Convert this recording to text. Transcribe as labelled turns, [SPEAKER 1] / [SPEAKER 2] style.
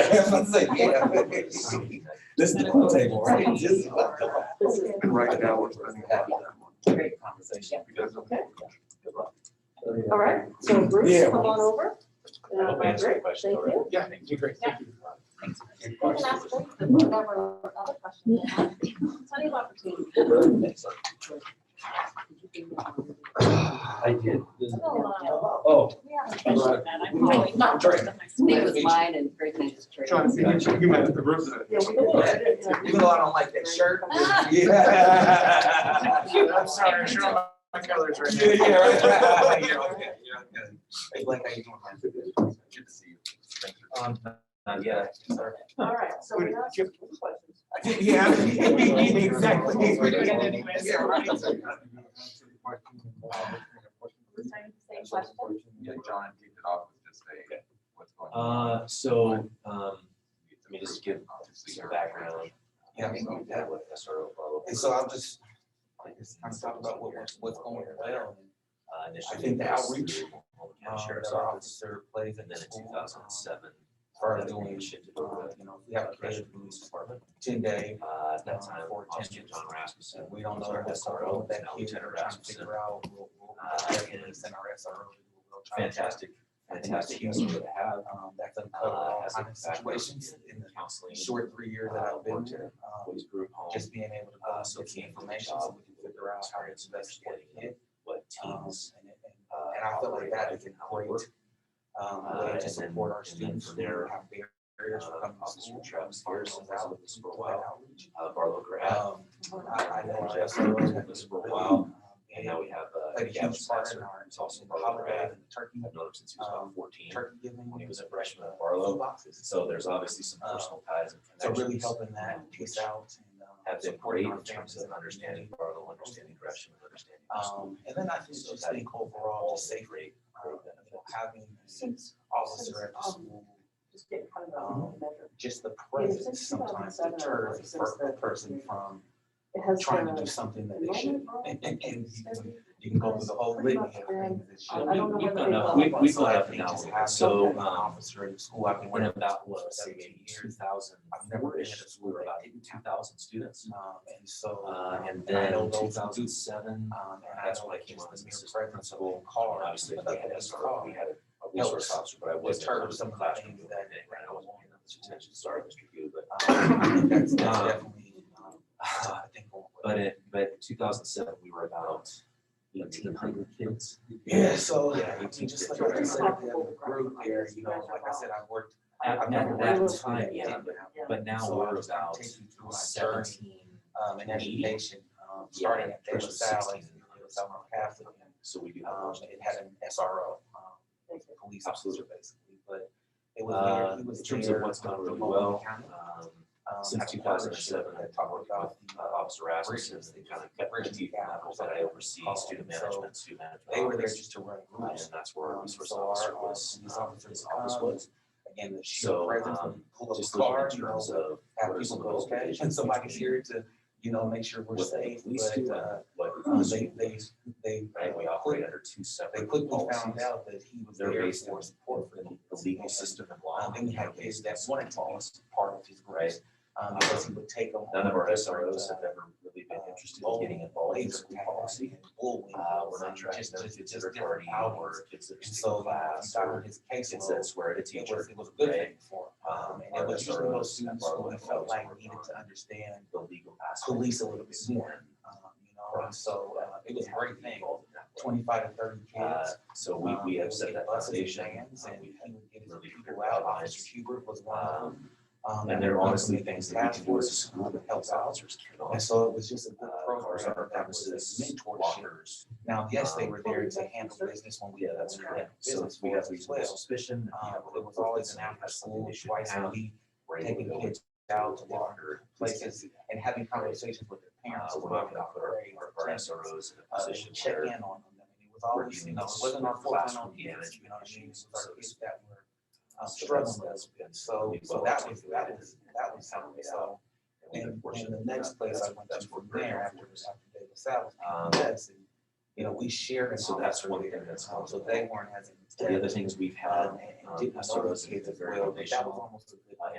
[SPEAKER 1] I'm about to say, yeah. This is the pool table, right? Just about the-
[SPEAKER 2] And right now, we're spending a lot of time on it
[SPEAKER 3] Great.
[SPEAKER 1] Conversation.
[SPEAKER 2] because of.
[SPEAKER 3] Okay. All right, so Bruce,
[SPEAKER 1] Yeah.
[SPEAKER 3] come on over. Uh,
[SPEAKER 4] I've answered the
[SPEAKER 3] Margaret,
[SPEAKER 4] question
[SPEAKER 3] thank
[SPEAKER 4] already.
[SPEAKER 3] you.
[SPEAKER 4] Yeah, thank you, great, thank you.
[SPEAKER 1] Any
[SPEAKER 5] Can I
[SPEAKER 1] questions?
[SPEAKER 5] ask one- there were other questions. Plenty of opportunity.
[SPEAKER 1] I did.
[SPEAKER 4] Oh,
[SPEAKER 5] We haven't mentioned that. I'm probably not.
[SPEAKER 1] Sorry.
[SPEAKER 6] Nate was mine and Greg and I just traded.
[SPEAKER 2] Trying to see which you met the resident.
[SPEAKER 3] Yeah, we
[SPEAKER 1] go
[SPEAKER 3] will.
[SPEAKER 1] ahead. Even though I don't like that shirt.
[SPEAKER 5] Ah.
[SPEAKER 1] Yeah.
[SPEAKER 4] I'm sorry, I'm sure I'm my colors right
[SPEAKER 1] Yeah, yeah, right.
[SPEAKER 4] now.
[SPEAKER 1] You're okay, you're okay. Hey, Blake, how you doing? man? Good to see you. Thank you. Um, not yet, sorry.
[SPEAKER 3] All right, so we asked some questions.
[SPEAKER 1] Yeah, exactly.
[SPEAKER 4] We're doing it anyways.
[SPEAKER 1] Yeah, right.
[SPEAKER 5] Same question.
[SPEAKER 1] Yeah, John kicked it off with just a, what's going on?
[SPEAKER 7] Uh, so, um, let me just give
[SPEAKER 1] Obviously,
[SPEAKER 7] some
[SPEAKER 1] you're-
[SPEAKER 7] background.
[SPEAKER 1] Yeah, I mean,
[SPEAKER 7] So,
[SPEAKER 1] that
[SPEAKER 7] what SRO follow-
[SPEAKER 1] And so I'm just, I'm talking about what, what's- what's going well.
[SPEAKER 7] Uh, initially
[SPEAKER 1] I think the
[SPEAKER 7] it was
[SPEAKER 1] outreach,
[SPEAKER 7] through Oklahoma County
[SPEAKER 1] um,
[SPEAKER 7] Sheriff's
[SPEAKER 1] that our
[SPEAKER 7] Office,
[SPEAKER 1] officer plays
[SPEAKER 7] and
[SPEAKER 1] at the
[SPEAKER 7] then in two
[SPEAKER 1] school,
[SPEAKER 7] thousand
[SPEAKER 1] um,
[SPEAKER 7] and seven.
[SPEAKER 1] Far as doing,
[SPEAKER 7] Shifted
[SPEAKER 1] uh,
[SPEAKER 7] over
[SPEAKER 1] you know,
[SPEAKER 7] to
[SPEAKER 1] we
[SPEAKER 7] the
[SPEAKER 1] have a
[SPEAKER 7] Operation
[SPEAKER 1] case,
[SPEAKER 7] Police Department.
[SPEAKER 1] ten day,
[SPEAKER 7] Uh, at that time,
[SPEAKER 1] For
[SPEAKER 7] Officer
[SPEAKER 1] attention.
[SPEAKER 7] John Rasmussen.
[SPEAKER 1] Um, and we don't know
[SPEAKER 7] was our
[SPEAKER 1] what's going on
[SPEAKER 7] SRO,
[SPEAKER 1] with that
[SPEAKER 7] now
[SPEAKER 1] kid,
[SPEAKER 7] Lieutenant
[SPEAKER 1] we're trying to
[SPEAKER 7] Rasmussen.
[SPEAKER 1] figure out. we'll- we'll-
[SPEAKER 7] Uh,
[SPEAKER 1] we'll definitely
[SPEAKER 7] and-
[SPEAKER 1] Send our SRO. We'll try to-
[SPEAKER 7] Fantastic,
[SPEAKER 1] I think that's a
[SPEAKER 7] fantastic.
[SPEAKER 1] huge
[SPEAKER 7] user.
[SPEAKER 1] one to have, um, that doesn't cover
[SPEAKER 7] Uh,
[SPEAKER 1] all
[SPEAKER 7] has a
[SPEAKER 1] kinds of
[SPEAKER 7] background
[SPEAKER 1] situations in the
[SPEAKER 7] counseling,
[SPEAKER 1] short three years that I've been here. Um,
[SPEAKER 7] boys group home.
[SPEAKER 1] Just being able to, uh,
[SPEAKER 7] Uh, so
[SPEAKER 1] get some
[SPEAKER 7] came from
[SPEAKER 1] information
[SPEAKER 7] job,
[SPEAKER 1] so we can figure out how to
[SPEAKER 7] experience
[SPEAKER 1] investigate
[SPEAKER 7] investigating
[SPEAKER 1] it.
[SPEAKER 7] what
[SPEAKER 1] Um,
[SPEAKER 7] teams.
[SPEAKER 1] and it- and-
[SPEAKER 7] uh,
[SPEAKER 1] and I feel like
[SPEAKER 7] operate
[SPEAKER 1] that
[SPEAKER 7] at
[SPEAKER 1] is a
[SPEAKER 7] and how they
[SPEAKER 1] great,
[SPEAKER 7] work.
[SPEAKER 1] um,
[SPEAKER 7] Uh,
[SPEAKER 1] way
[SPEAKER 7] and
[SPEAKER 1] to
[SPEAKER 7] then-
[SPEAKER 1] support our
[SPEAKER 7] and then
[SPEAKER 1] students
[SPEAKER 7] from
[SPEAKER 1] who
[SPEAKER 7] there,
[SPEAKER 1] have barriers
[SPEAKER 7] Uh,
[SPEAKER 1] for coming to
[SPEAKER 7] Officer
[SPEAKER 1] school.
[SPEAKER 7] Travis Pearson was out with us for a
[SPEAKER 1] Well,
[SPEAKER 7] while. Uh, Barlow Grab,
[SPEAKER 1] Um, I, I know Jeff
[SPEAKER 7] Barlow
[SPEAKER 1] Sarro's
[SPEAKER 7] with
[SPEAKER 1] been
[SPEAKER 7] us
[SPEAKER 1] this
[SPEAKER 7] for a while. And
[SPEAKER 1] And
[SPEAKER 7] now we have, uh,
[SPEAKER 1] played a
[SPEAKER 7] Gavin
[SPEAKER 1] huge part in
[SPEAKER 7] Spencer.
[SPEAKER 1] our,
[SPEAKER 7] It's also
[SPEAKER 1] in the
[SPEAKER 7] Barlow
[SPEAKER 1] holiday
[SPEAKER 7] Grab.
[SPEAKER 1] and the turkey,
[SPEAKER 7] I've known him since he was
[SPEAKER 1] Um,
[SPEAKER 7] about fourteen,
[SPEAKER 1] turkey giving.
[SPEAKER 7] when he was a freshman at
[SPEAKER 1] Food
[SPEAKER 7] Barlow.
[SPEAKER 1] boxes.
[SPEAKER 7] So there's obviously some personal ties and
[SPEAKER 1] Um, So
[SPEAKER 7] connections.
[SPEAKER 1] really helping that piece out and. um,
[SPEAKER 7] Have been great
[SPEAKER 1] supporting
[SPEAKER 7] in
[SPEAKER 1] our
[SPEAKER 7] terms
[SPEAKER 1] families
[SPEAKER 7] of
[SPEAKER 1] and
[SPEAKER 7] understanding Barlow, understanding Gresham, and understanding. our school.
[SPEAKER 1] Um, and then I just, just think overall, just safe rate, um, you know, having an
[SPEAKER 3] Since, um,
[SPEAKER 1] officer at the school, um,
[SPEAKER 3] just get kind of a measure.
[SPEAKER 1] just the presence sometimes deters the per- the person from
[SPEAKER 3] It has
[SPEAKER 1] trying to do
[SPEAKER 3] the.
[SPEAKER 1] something that they shouldn't.
[SPEAKER 3] enrollment roll,
[SPEAKER 1] And, and, and you can-
[SPEAKER 3] study.
[SPEAKER 1] you can go through the whole litany of things that
[SPEAKER 3] I
[SPEAKER 1] should.
[SPEAKER 3] don't know
[SPEAKER 7] We've
[SPEAKER 3] whether
[SPEAKER 7] gone
[SPEAKER 3] they
[SPEAKER 7] up-
[SPEAKER 3] will.
[SPEAKER 7] we- We've gone
[SPEAKER 1] I
[SPEAKER 7] up
[SPEAKER 1] think
[SPEAKER 7] and down.
[SPEAKER 1] just
[SPEAKER 7] with it.
[SPEAKER 1] having
[SPEAKER 7] So,
[SPEAKER 1] an
[SPEAKER 7] um,
[SPEAKER 1] Officer at the school, I've been
[SPEAKER 7] when
[SPEAKER 1] working
[SPEAKER 7] about, what,
[SPEAKER 1] seventeen
[SPEAKER 7] seventeen, two
[SPEAKER 1] years.
[SPEAKER 7] thousand,
[SPEAKER 1] I've never been at a
[SPEAKER 7] we
[SPEAKER 1] school
[SPEAKER 7] were
[SPEAKER 1] that
[SPEAKER 7] about
[SPEAKER 1] did
[SPEAKER 7] two thousand students.
[SPEAKER 1] Um, and so.
[SPEAKER 7] Uh,
[SPEAKER 1] um,
[SPEAKER 7] and
[SPEAKER 1] I
[SPEAKER 7] then
[SPEAKER 1] know
[SPEAKER 7] two
[SPEAKER 1] those
[SPEAKER 7] thousand seven,
[SPEAKER 1] Um, and I
[SPEAKER 7] that's
[SPEAKER 1] know
[SPEAKER 7] when I
[SPEAKER 1] like
[SPEAKER 7] came
[SPEAKER 1] just the
[SPEAKER 7] on as
[SPEAKER 1] mere
[SPEAKER 7] assistant
[SPEAKER 1] presence of
[SPEAKER 7] principal.
[SPEAKER 1] car,
[SPEAKER 7] Obviously, we had a
[SPEAKER 1] car.
[SPEAKER 7] we had a resource officer, but I wasn't.
[SPEAKER 1] deter
[SPEAKER 7] I was
[SPEAKER 1] some
[SPEAKER 7] in
[SPEAKER 1] of
[SPEAKER 7] the
[SPEAKER 1] the things
[SPEAKER 7] classroom doing
[SPEAKER 1] that-
[SPEAKER 7] that, right? I wasn't paying that much attention. Sorry, Mr. Yu, but.
[SPEAKER 1] Um, I think That's that's
[SPEAKER 7] Um,
[SPEAKER 1] definitely, um, I think. what-
[SPEAKER 7] But it, but in two thousand seven, we were about eighteen hundred kids.
[SPEAKER 1] Yeah, so,
[SPEAKER 7] Yeah,
[SPEAKER 1] I mean,
[SPEAKER 7] eighteen
[SPEAKER 1] just
[SPEAKER 7] kids.
[SPEAKER 1] like I said, the other group there, you know, like I said, I worked.
[SPEAKER 7] At,
[SPEAKER 1] I've
[SPEAKER 7] at
[SPEAKER 1] never
[SPEAKER 7] that
[SPEAKER 1] worked with
[SPEAKER 7] time,
[SPEAKER 1] it,
[SPEAKER 7] yeah,
[SPEAKER 1] didn't
[SPEAKER 7] but,
[SPEAKER 1] have-
[SPEAKER 7] but now
[SPEAKER 1] So I
[SPEAKER 7] we're
[SPEAKER 1] just kinda
[SPEAKER 7] about
[SPEAKER 1] take you through my journey,
[SPEAKER 7] seventeen.
[SPEAKER 1] um, in education, um, starting at Taylor
[SPEAKER 7] versus
[SPEAKER 1] Sally,
[SPEAKER 7] 16.
[SPEAKER 1] it was out on Catholic. and,
[SPEAKER 7] So we do have.
[SPEAKER 1] Um,
[SPEAKER 7] those
[SPEAKER 1] it
[SPEAKER 7] things.
[SPEAKER 1] had an SRO, um, police officer basically, but it was
[SPEAKER 7] Uh,
[SPEAKER 1] there, he
[SPEAKER 7] in
[SPEAKER 1] was
[SPEAKER 7] terms of
[SPEAKER 1] there.
[SPEAKER 7] what's gone
[SPEAKER 1] um,
[SPEAKER 7] really
[SPEAKER 1] for
[SPEAKER 7] well,
[SPEAKER 1] Oklahoma County.
[SPEAKER 7] um,
[SPEAKER 1] Um,
[SPEAKER 7] since
[SPEAKER 1] I have a
[SPEAKER 7] 2007,
[SPEAKER 1] partnership That talked about
[SPEAKER 7] uh,
[SPEAKER 1] the, uh,
[SPEAKER 7] Officer Rasmussen, they kind of cut the deep levels that I oversee, student management, student management.
[SPEAKER 1] They were there
[SPEAKER 7] office,
[SPEAKER 1] just to run
[SPEAKER 7] uh,
[SPEAKER 1] groups.
[SPEAKER 7] And that's where our
[SPEAKER 1] Um,
[SPEAKER 7] resource
[SPEAKER 1] so our,
[SPEAKER 7] officer
[SPEAKER 1] uh,
[SPEAKER 7] was,
[SPEAKER 1] police
[SPEAKER 7] um,
[SPEAKER 1] officers
[SPEAKER 7] his office
[SPEAKER 1] come,
[SPEAKER 7] was.
[SPEAKER 1] Again, the sheer
[SPEAKER 7] So,
[SPEAKER 1] presence
[SPEAKER 7] um,
[SPEAKER 1] when you pull up
[SPEAKER 7] Just
[SPEAKER 1] a
[SPEAKER 7] looking
[SPEAKER 1] car,
[SPEAKER 7] in
[SPEAKER 1] you know,
[SPEAKER 7] terms of
[SPEAKER 1] have
[SPEAKER 7] what are
[SPEAKER 1] people
[SPEAKER 7] some
[SPEAKER 1] go,
[SPEAKER 7] of those
[SPEAKER 1] okay, and
[SPEAKER 7] locations
[SPEAKER 1] somebody's
[SPEAKER 7] between
[SPEAKER 1] here to, you know, make sure we're
[SPEAKER 7] what the
[SPEAKER 1] safe,
[SPEAKER 7] police do
[SPEAKER 1] but,
[SPEAKER 7] and
[SPEAKER 1] uh,
[SPEAKER 7] what
[SPEAKER 1] um,
[SPEAKER 7] we
[SPEAKER 1] they,
[SPEAKER 7] do,
[SPEAKER 1] they, they.
[SPEAKER 7] right? We
[SPEAKER 1] uh,
[SPEAKER 7] operate
[SPEAKER 1] quick-
[SPEAKER 7] under two
[SPEAKER 1] They
[SPEAKER 7] separate
[SPEAKER 1] quickly
[SPEAKER 7] policies.
[SPEAKER 1] found out that he was
[SPEAKER 7] They're
[SPEAKER 1] there
[SPEAKER 7] based
[SPEAKER 1] for
[SPEAKER 7] on
[SPEAKER 1] support for them.
[SPEAKER 7] the legal system and law.
[SPEAKER 1] Um, then we had kids that wanted to be part of his groups,
[SPEAKER 7] Right.
[SPEAKER 1] um, because he would take them.
[SPEAKER 7] None of our
[SPEAKER 1] different,
[SPEAKER 7] SROs have
[SPEAKER 1] uh,
[SPEAKER 7] ever really been interested
[SPEAKER 1] uh,
[SPEAKER 7] in getting involved in
[SPEAKER 1] ways
[SPEAKER 7] school
[SPEAKER 1] of
[SPEAKER 7] policy.
[SPEAKER 1] policy and bullying.
[SPEAKER 7] Uh, we're not
[SPEAKER 1] and
[SPEAKER 7] trying
[SPEAKER 1] just-
[SPEAKER 7] to
[SPEAKER 1] just-
[SPEAKER 7] it's
[SPEAKER 1] just
[SPEAKER 7] a
[SPEAKER 1] different
[SPEAKER 7] party
[SPEAKER 1] hours.
[SPEAKER 7] or kids that
[SPEAKER 1] And
[SPEAKER 7] just
[SPEAKER 1] so, uh,
[SPEAKER 7] class or
[SPEAKER 1] started his case.
[SPEAKER 7] kids that swear at a
[SPEAKER 1] It was,
[SPEAKER 7] teacher.
[SPEAKER 1] it was a good
[SPEAKER 7] right?
[SPEAKER 1] thing for him. Um, and it
[SPEAKER 7] Our
[SPEAKER 1] was usually those
[SPEAKER 7] SROs and
[SPEAKER 1] students who
[SPEAKER 7] our
[SPEAKER 1] felt like
[SPEAKER 7] locals
[SPEAKER 1] needed to understand,
[SPEAKER 7] The legal aspect.
[SPEAKER 1] police a little bit more, um, you know, and so, uh, it was a great thing, twenty-five to thirty
[SPEAKER 7] Uh,
[SPEAKER 1] kids.
[SPEAKER 7] so we, we have set
[SPEAKER 1] said
[SPEAKER 7] that foundation. uh,
[SPEAKER 1] And
[SPEAKER 7] we
[SPEAKER 1] he would get his
[SPEAKER 7] really
[SPEAKER 1] people
[SPEAKER 7] clear
[SPEAKER 1] out,
[SPEAKER 7] guidelines.
[SPEAKER 1] Officer Hubert was one of them.
[SPEAKER 7] Um,
[SPEAKER 1] Um,
[SPEAKER 7] and there are
[SPEAKER 1] um,
[SPEAKER 7] honestly
[SPEAKER 1] the
[SPEAKER 7] things that we
[SPEAKER 1] task
[SPEAKER 7] can do as a
[SPEAKER 1] force,
[SPEAKER 7] school
[SPEAKER 1] um,
[SPEAKER 7] that helps
[SPEAKER 1] helps out.
[SPEAKER 7] officers. cannot,
[SPEAKER 1] And so it was just a
[SPEAKER 7] Uh,
[SPEAKER 1] good
[SPEAKER 7] cars on our
[SPEAKER 1] program that was a
[SPEAKER 7] premises,
[SPEAKER 1] mentorship.
[SPEAKER 7] lockers.
[SPEAKER 1] Now, yes, they were there to
[SPEAKER 3] Um,
[SPEAKER 1] handle business when we.
[SPEAKER 7] Yeah, that's
[SPEAKER 1] when we were
[SPEAKER 7] correct.
[SPEAKER 1] in
[SPEAKER 7] So
[SPEAKER 1] business
[SPEAKER 7] it's- we have
[SPEAKER 1] for us as
[SPEAKER 7] reasonable
[SPEAKER 1] well.
[SPEAKER 7] suspicion.
[SPEAKER 1] Um, it was always an after school, twice a week,
[SPEAKER 7] We're able to
[SPEAKER 1] taking
[SPEAKER 7] go
[SPEAKER 1] kids
[SPEAKER 7] out
[SPEAKER 1] out
[SPEAKER 7] to
[SPEAKER 1] to walk
[SPEAKER 7] locker places.
[SPEAKER 1] places and having conversations with their
[SPEAKER 7] Uh,
[SPEAKER 1] parents.
[SPEAKER 7] we're not gonna put our, our- our SROs in a
[SPEAKER 1] uh,
[SPEAKER 7] position
[SPEAKER 1] check
[SPEAKER 7] where
[SPEAKER 1] in on them. I mean, it was always, you know, it wasn't our fault,
[SPEAKER 7] Classroom
[SPEAKER 1] on kids, you know what I mean? It was our kids that were uh,
[SPEAKER 7] So
[SPEAKER 1] struggling.
[SPEAKER 7] that's-
[SPEAKER 1] with it. So, so that was, that was, that was something, so. And, and the next place I went to from there after, after David Savage,
[SPEAKER 7] Um,
[SPEAKER 1] that's, and, you know, we shared. an
[SPEAKER 7] So that's one
[SPEAKER 1] opportunity,
[SPEAKER 7] thing that's
[SPEAKER 1] um, So
[SPEAKER 7] helpful.
[SPEAKER 1] they weren't as.
[SPEAKER 7] The other things we've
[SPEAKER 1] Um,
[SPEAKER 7] had,
[SPEAKER 1] and
[SPEAKER 7] um,
[SPEAKER 1] didn't know
[SPEAKER 7] SROs
[SPEAKER 1] those
[SPEAKER 7] that
[SPEAKER 1] kids
[SPEAKER 7] are
[SPEAKER 1] as
[SPEAKER 7] very
[SPEAKER 1] well, but that
[SPEAKER 7] foundational.
[SPEAKER 1] was almost a good.
[SPEAKER 7] uh,